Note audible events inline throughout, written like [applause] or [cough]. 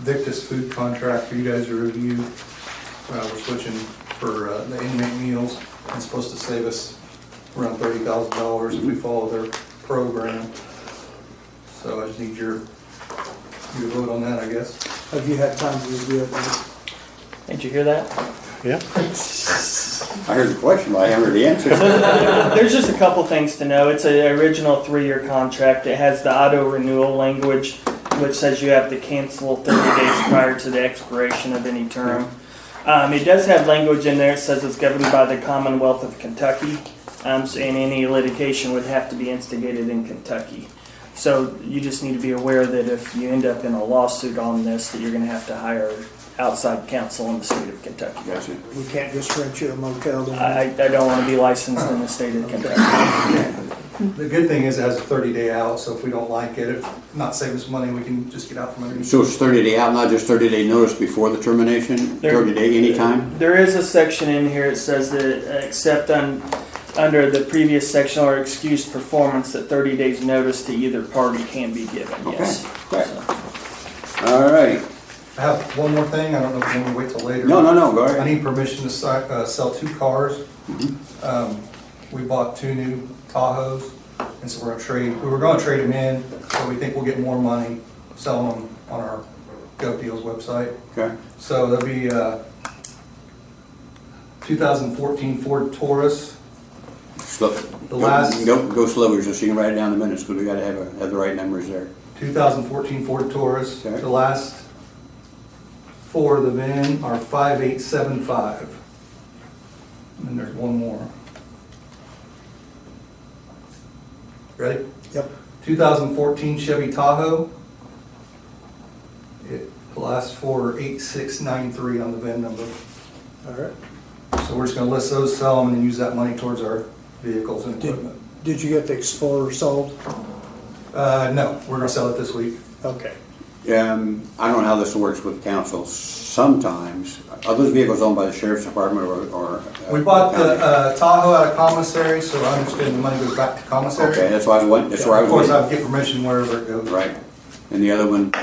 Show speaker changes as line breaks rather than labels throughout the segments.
Victus food contract for you guys to review. Uh, we're switching for, uh, the inmate meals. It's supposed to save us around thirty thousand dollars if we follow their program. So I just need your, your vote on that, I guess.
Have you had time to review it? Mike?
Did you hear that?
Yeah.
I heard the question, but I haven't heard
[laughs]
the answer.
There's just a couple things to know. It's an original three-year contract. It has the auto renewal language, which says you have to cancel 30 days prior to the expiration of any term. Um, it does have language in there. It says it's governed by the Commonwealth of Kentucky, um, so- and any litigation would have to be instigated in Kentucky. So you just need to be aware that if you end up in a lawsuit on this, that you're going to have to hire outside counsel in the state of Kentucky.
Gotcha.
We can't just rent you a motel down
I, I
there.
I don't want to be licensed in the state of Kentucky.
The good thing is it has a thirty day out, so if we don't like it, if not save us money, we can just get out from underneath.
So it's thirty day out, not just thirty day notice before the termination,
There-
thirty day anytime?
There is a section in here that says that uh, except un, under the previous section or excused performance, that 30 days notice to either party can be given, yes.
Okay, great.
So,
All right,
I have one more thing, I don't know if you want me to wait till later.
no, no, no, go
I
ahead.
need permission to si- uh, sell two cars. Um, We bought two new Tahoes, and so we're gonna trade, we were gonna trade them in, but we think we'll get more money selling them on our GovDeals website.
Okay,
So there'll be uh, a 2014 Ford Taurus.
slow.
The last-
Go, go slower, just so you can write it down in the minutes, because we gotta have, a- have the right numbers there.
2014 Ford Taurus.
Okay.
The last four of the VIN are 5875. And then there's one more. Ready?
Yep.
2014 Chevy Tahoe. It, the last four are 8693 on the VIN number.
All right.
So we're just gonna list those, sell them, and then use that money towards our vehicles and
Did,
equipment.
did you get the Explorer sold?
Uh, no, we're gonna sell it this week.
Okay.
Um, I don't know how this works with council. Sometimes, are those vehicles owned by the sheriff's department or? or, uh,
We bought the
county?
uh, Tahoe out of commissary, so I understand the money goes back to commissary.
Okay, that's why I was, wondering- that's where I
Of course,
was.
I'll
wondering.
get permission wherever it goes.
Right. And the other one,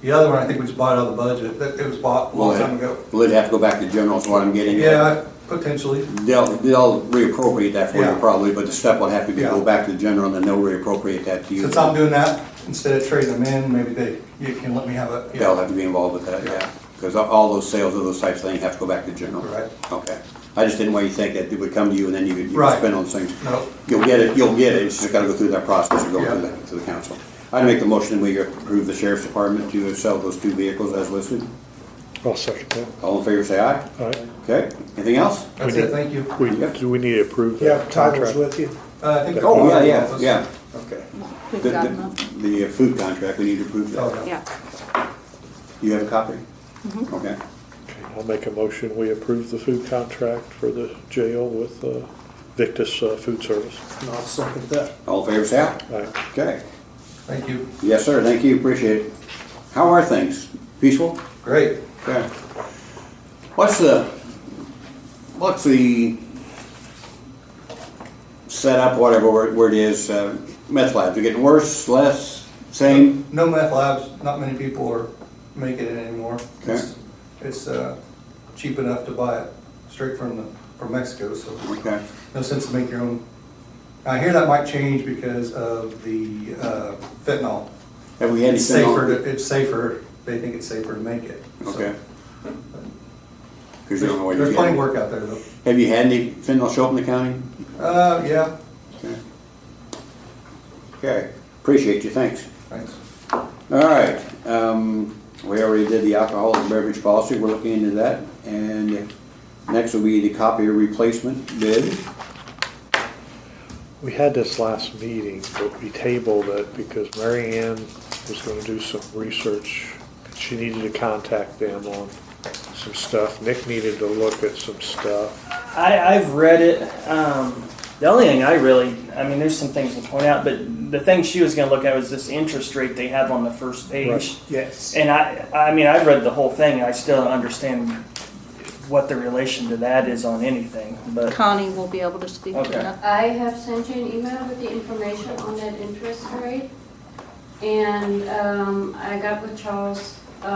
The other one, I think we just bought out of the budget, that, it was bought a
will
long
it,
time ago.
will it have to go back to general is what I'm getting at?
Yeah, potentially,
They'll, they'll reappropriate that for you
Yeah.
probably, but the step will have to be
Yeah.
go back to the general and then they'll reappropriate that to you.
since I'm doing that, instead of trading them in, maybe they, you can let me have it.
They'll have to be involved with that, yeah. Because all those sales of those types of things have to go back to general.
Right.
Okay. I just didn't want you to think that it would come to you and then you would, you would
Right.
spend on things.
No,
You'll get it, you'll get it, it's just gotta go through that process of going
Yeah.
through that, to the council. I'd make the motion we approve the sheriff's department to sell those two vehicles as listed.
I'll second that.
All in favor, say aye.
All right.
Okay, anything else?
that's it, thank you.
We,
Yep.
do we need to approve
You
that
have titles
contract?
with you?
Uh, I think.
Oh, yeah, yeah, yeah, okay.
We've
The-
got
the-
them.
The uh, food contract, we need to approve that.
Okay.
Yeah.
You have a copy? Okay.
Okay, I'll make a motion, we approve the food contract for the jail with uh, Victus uh, Food Service.
And I'll second that.
All in favor, say aye.
All right.
Okay.
Thank you,
Yes, sir, thank you, appreciate it. How are things? Peaceful?
great.
Okay. What's the, what's the setup, whatever word word it is, uh, meth labs? Are getting worse, less, same?
No meth labs, not many people are making it anymore.
Okay.
It's- It's, uh, cheap enough to buy it straight from the, from Mexico, so.
Okay.
no sense to make your own. I hear that might change because of the uh, fentanyl.
Have we had any?
It's safer, to- it's safer, they think it's safer to make it. so.
Okay. Because you don't know what
There's there's
you're
plenty of
getting.
work out there though.
Have you had any fentanyl show up in the county?
Uh, yeah,
Okay. Okay, appreciate you, thanks.
thanks.
All right, um, we already did the alcohol and beverage policy, we're looking into that. And next will be the copier replacement bid.
We had this last meeting, but we tabled it because Mary Ann was gonna do some research. She needed to contact them on some stuff. Nick needed to look at some stuff.
I, I've read it. Um, the only thing I really, I mean, there's some things to point out, but the thing she was going to look at was this interest rate they have on the first page.
Right.
Yes.
And I, I mean, I've read the whole thing. I still don't understand what the relation to that is on anything, but
Connie will be able to speak to
Okay.
that.
I have sent you an email with the information on that interest rate. And um, I got with Charles